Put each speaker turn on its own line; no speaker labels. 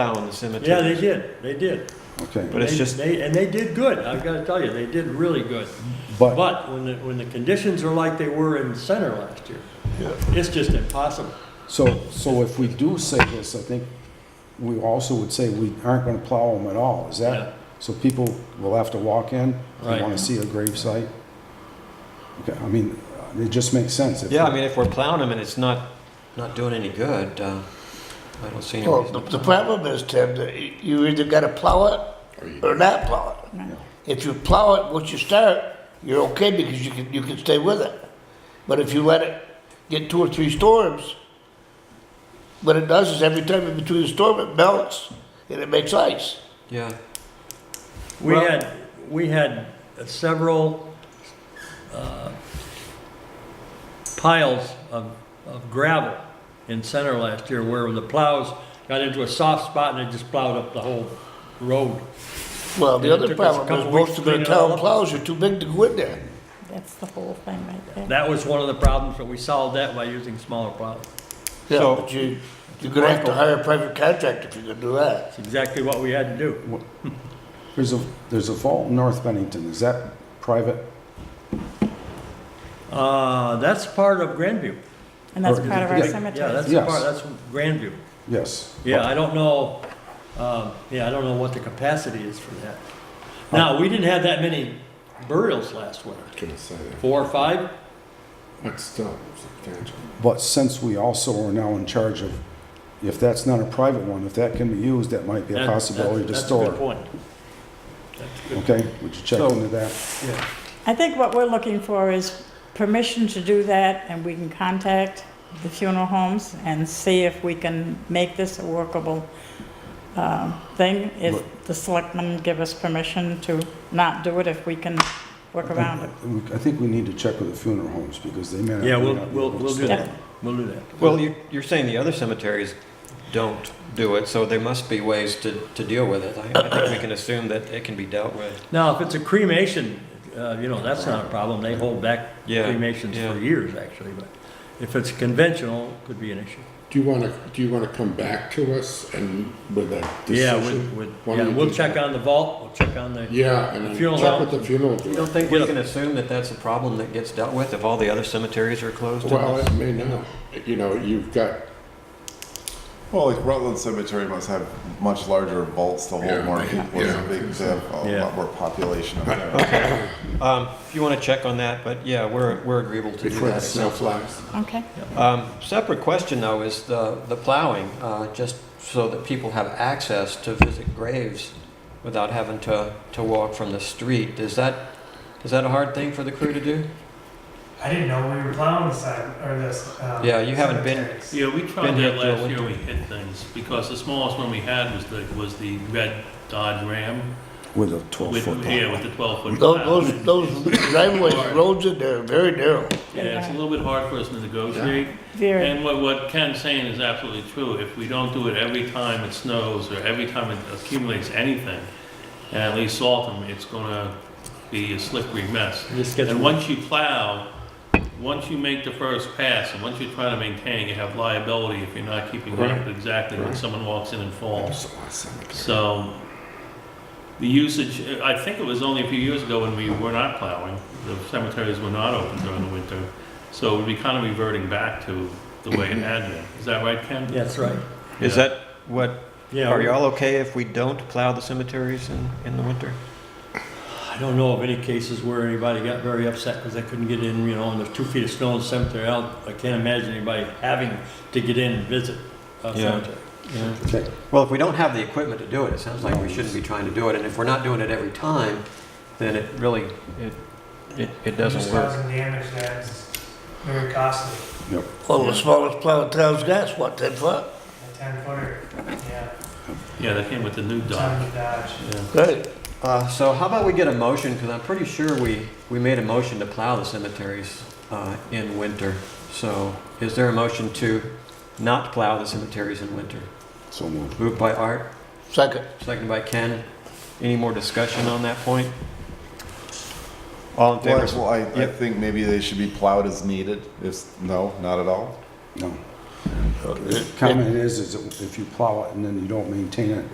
down the cemetery.
Yeah, they did, they did.
But
Okay,
it's
They-
just-
They, and they did good, I've gotta tell you, they did really good.
but,
But when the, when the conditions are like they were in center last year, it's just impossible.
so, so if we do say this, I think we also would say we aren't gonna plow them at all, is
Yeah.
that? So people will have to walk in, they
Right.
wanna see a grave site? Okay, I mean, it just makes sense. if
Yeah, I mean, if we're plowing them and it's not, not doing any good, uh, I don't see any
Well,
reason.
the,
to
the
plow.
problem is, Tim, that y- you either gotta plow it or not plow it. If you plow it, once you start, you're okay because you can, you can stay with it. But if you let it get two or three storms, what it does is every time in between the storm, it melts and it makes ice.
Yeah,
We
Well-
had, we had several uh, piles of, of gravel in center last year where the plows got into a soft spot and it just plowed up the whole road.
Well, the
Yeah, it
other
took us a
problem
couple
is
weeks
most of
to
the
clean it all
town
up.
plows are too big to go in there.
That's the whole thing right there.
That was one of the problems, but we solved that by using smaller plows.
Yeah,
So-
but you, you're gonna have to hire a private contractor if you're gonna do that.
That's exactly what we had to do.
There's a, there's a vault in North Bennington, is that private?
Uh, That's part of Grandview.
And that's
Or-
part of our
yeah,
Yeah,
cemetery.
that's the
Yes.
part, that's Grandview.
Yes.
Yeah, I don't know, um, yeah, I don't know what the capacity is for that. Now, we didn't have that many burials last winter,
Gonna say that.
four or five?
But still, substantial.
But since we also are now in charge of, if that's not a private one, if that can be used, that might be a
That-
possibility
that-
to
That's a good
store.
point. That's a good,
Okay, would you check
So-
into that?
I think what we're looking for is permission to do that, and we can contact the funeral homes and see if we can make this a workable um, thing, if the selectmen give us permission to not do it, if we can work around it.
I think we need to check with the funeral homes because they may not.
yeah,
may
we'll,
not be
we'll,
able to
we'll do
store
that,
it.
we'll do that.
well, you, you're saying the other cemeteries don't do it, so there must be ways to, to deal with it. I, I think we can assume that it can be dealt with.
Now, if it's a cremation, uh, you know, that's not a problem, they hold back
Yeah,
cremations
yeah.
for years, actually, but if it's conventional, it could be an issue.
Do you wanna, do you wanna come back to us and with a
Yeah,
decision?
with, with,
Why
yeah,
don't you
we'll
do
check
that?
on the vault, we'll check on the,
Yeah, and
Funeral
then check
home.
with the funeral.
You
director.
don't think we
Yeah.
can assume that that's a problem that gets dealt with if all the other cemeteries are closed? in
Well,
this?
it may not, you know, you've got,
Well, like Rutland Cemetery must have much larger vaults to hold
Yeah,
more
they-
people.
yeah.
It's big, they have a
Yeah.
lot more population up there.
Um, if you want to check on that, but yeah, we're, we're agreeable to do
before the
that.
snow flies.
Okay?
Um, Separate question, though, is the, the plowing, uh, just so that people have access to visit graves without having to, to walk from the street. Is that, is that a hard thing for the crew to do?
I didn't know we were plowing the side or this. Um,
Yeah, you haven't been-
cemeteries.
Yeah, we
Been
tried
here
that
till
last year,
winter.
we hit things, because the smallest one we had was the, was the red Dodge Ram.
With a twelve
with-
foot.
Yeah, with the twelve foot.
Those, those, those driveways, roads in there are very narrow.
Yeah, it's a little bit hard for us to negotiate,
Very,
and what, what Ken's saying is absolutely true, if we don't do it every time it snows, or every time it accumulates anything, and at least salt them, it's gonna be a slippery mess.
just get,
And once you plow, once you make the first pass, and once you try to maintain, you have liability if you're not keeping up
Right.
exactly when
Right.
someone walks in and falls.
There's a lot of cemeteries.
So, the usage, I think it was only a few years ago when we were not plowing, the cemeteries were not open during the winter. So it would be kind of reverting back to the way it had been. Is that right, Ken?
that's right.
Is that what,
Yeah,
are y'all okay if we don't plow the cemeteries in, in the winter?
I don't know of any cases where anybody got very upset because they couldn't get in, you know, and there's two feet of snow in the cemetery. I, don't, I can't imagine anybody having to get in and visit a
Yeah.
cemetery. Yeah.
Okay,
Well, if we don't have the equipment to do it, it sounds like we shouldn't be trying to do it, and if we're not doing it every time, then it really, it, it, it doesn't
Just
work.
causing damage that's very costly.
Well, the smallest plow in town's got's what, ten foot?
A ten footer, yeah,
Yeah, they came with the new dock.
ton of dodge.
Yeah.
Right.
Uh, so how about we get a motion, because I'm pretty sure we, we made a motion to plow the cemeteries, uh, in winter. So is there a motion to not plow the cemeteries in winter?
so moved.
Moved by Art,
Second.
seconded by Ken. Any more discussion on that point? All in
Well, I-
favor?
well, I, I
Yep.
think maybe they should be plowed as needed. If, no, not at all.
No,
So, it- it- Oh,
Comment is, is if you plow it and then you don't maintain it,